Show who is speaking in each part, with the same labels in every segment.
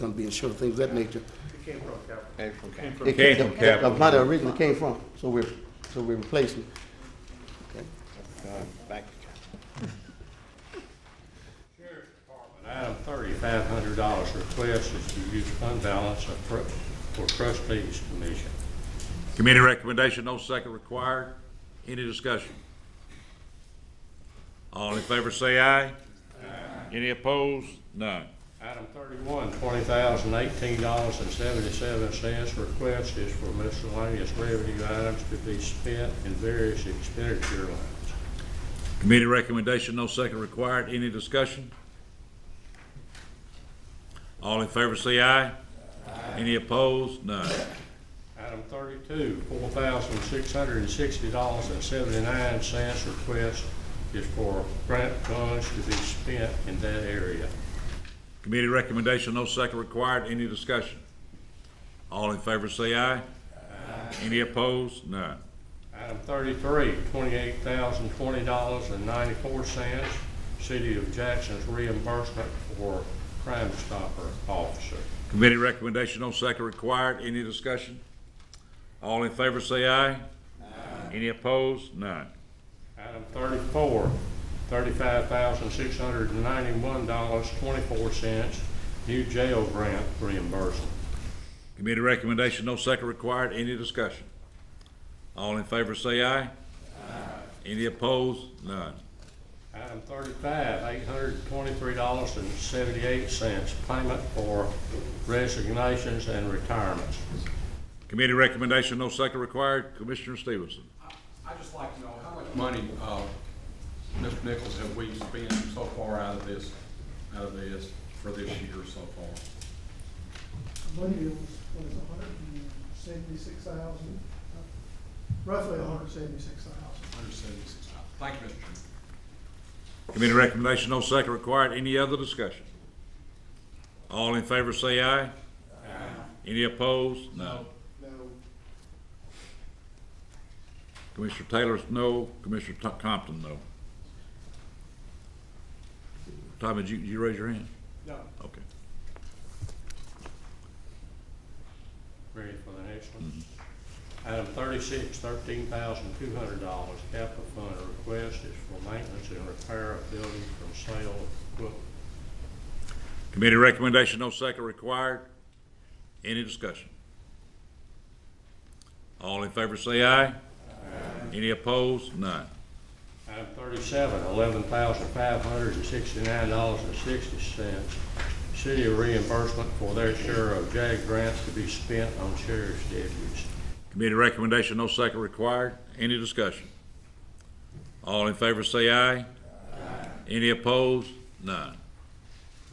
Speaker 1: gonna be insured, things of that nature.
Speaker 2: Okay.
Speaker 1: It
Speaker 3: Came from
Speaker 1: The
Speaker 3: capital.
Speaker 1: money originally came from, so we're, so we're replacing.
Speaker 2: Uh, back to John. Sheriff's Department, Item thirty-five hundred dollars request is to use fund balance of tru- for trustees commission.
Speaker 3: Committee recommendation, no second required. Any discussion? All in favor say aye. Aye. Any opposed? None.
Speaker 2: Item thirty-one, twenty thousand eighteen dollars and seventy-seven cents request is for miscellaneous revenue items to be spent in various expenditure lines.
Speaker 3: Committee recommendation, no second required. Any discussion? All in favor say aye. Any opposed? None.
Speaker 2: Item thirty-two, four thousand six hundred and sixty dollars and seventy-nine cents request is for grant funds to be spent in that area.
Speaker 3: Committee recommendation, no second required. Any discussion? All in favor say aye. Any opposed? None.
Speaker 2: Item thirty-three, twenty-eight thousand twenty dollars and ninety-four cents, City of Jackson's reimbursement for Crime Stopper officer.
Speaker 3: Committee recommendation, no second required. Any discussion? All in favor say aye. Any opposed? None.
Speaker 2: Item thirty-four, thirty-five thousand six hundred and ninety-one dollars, twenty-four cents, new jail grant reimbursement.
Speaker 3: Committee recommendation, no second required. Any discussion? All in favor say aye. Any opposed? None.
Speaker 2: Item thirty-five, eight hundred and twenty-three dollars and seventy-eight cents, payment for resignations and retirements.
Speaker 3: Committee recommendation, no second required. Commissioner Stevenson.
Speaker 4: I'd just like to know, how much money, uh, Mr. Nichols, have we spent so far out of this, out of this, for this year so far?
Speaker 5: believe it was, what is it, hundred and seventy-six thousand? Roughly hundred and seventy-six thousand.
Speaker 4: Hundred seventy-six thousand. Thank you, Mr. Chairman.
Speaker 3: Committee recommendation, no second required. Any other discussion? All in favor say aye. Aye. Any opposed? No.
Speaker 5: No,
Speaker 3: Commissioner Taylor's no, Commissioner Tom- Compton no. Tommy, did you, did you raise your hand?
Speaker 5: no.
Speaker 3: Okay.
Speaker 2: Ready for the next one? Item thirty-six, thirteen thousand two hundred dollars, capital fund request is for maintenance and repair of buildings from sale of equipment.
Speaker 3: Committee recommendation, no second required. Any discussion? All in favor say aye. Aye. Any opposed? None.
Speaker 2: Item thirty-seven, eleven thousand five hundred and sixty-nine dollars and sixty cents, city reimbursement for their share of JAG grants to be spent on sheriff's deputies.
Speaker 3: Committee recommendation, no second required. Any discussion? All in favor say aye. Aye. Any opposed? None.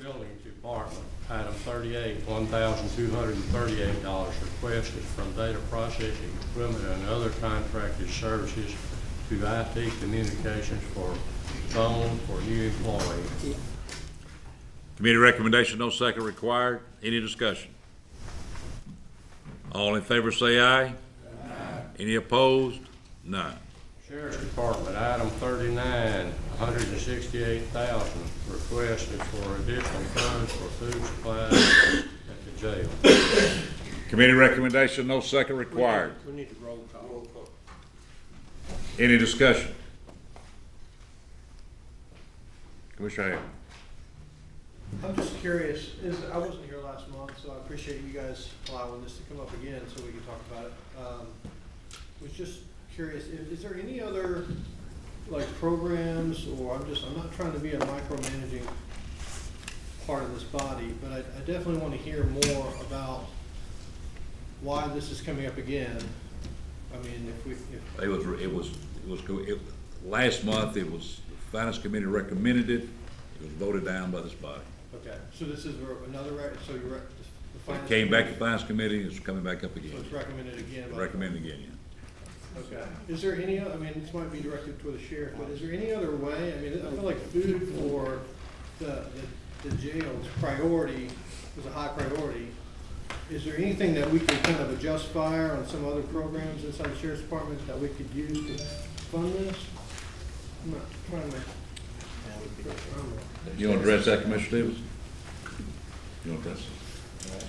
Speaker 2: Building Department, item thirty-eight, one thousand two hundred and thirty-eight dollars requested from data processing equipment and other contracted services to IT communications for phone for new employees.
Speaker 3: Committee recommendation, no second required. Any discussion? All in favor say aye. Aye. Any opposed? None.
Speaker 2: Sheriff's Department, item thirty-nine, hundred and sixty-eight thousand requested for additional funds for food supplies at the jail.
Speaker 3: Committee recommendation, no second required.
Speaker 4: We need to roll call.
Speaker 3: Any discussion? Commissioner Hale.
Speaker 5: I'm just curious, is, I wasn't here last month, so I appreciate you guys allowing this to come up again so we can talk about it. Um, Was just curious, is, is there any other, like, programs, or I'm just, I'm not trying to be a micromanaging part of this body, but I, I definitely wanna hear more about why this is coming up again. I mean, if we, if,
Speaker 3: It was, it was, it was, go- it, last month, it was, the Finance Committee recommended it. It was voted down by this body.
Speaker 5: okay, so this is re- another, rec- so you're, rec- the
Speaker 3: It
Speaker 5: finance.
Speaker 3: came back to
Speaker 5: committee-
Speaker 3: Finance Committee, it's coming back up
Speaker 5: So
Speaker 3: again.
Speaker 5: it's recommended again by.
Speaker 3: Recommended again, yeah.
Speaker 5: Okay. Is there any, oth- I mean, this might be directed toward the sheriff, but is there any other way? I mean, I feel like food for the, the, the jail's priority is a high priority. Is there anything that we can kind of adjust fire on some other programs inside the sheriff's department that we could use to fund this? I'm not trying to.
Speaker 3: You want to address that, Commissioner Stevens? You want to address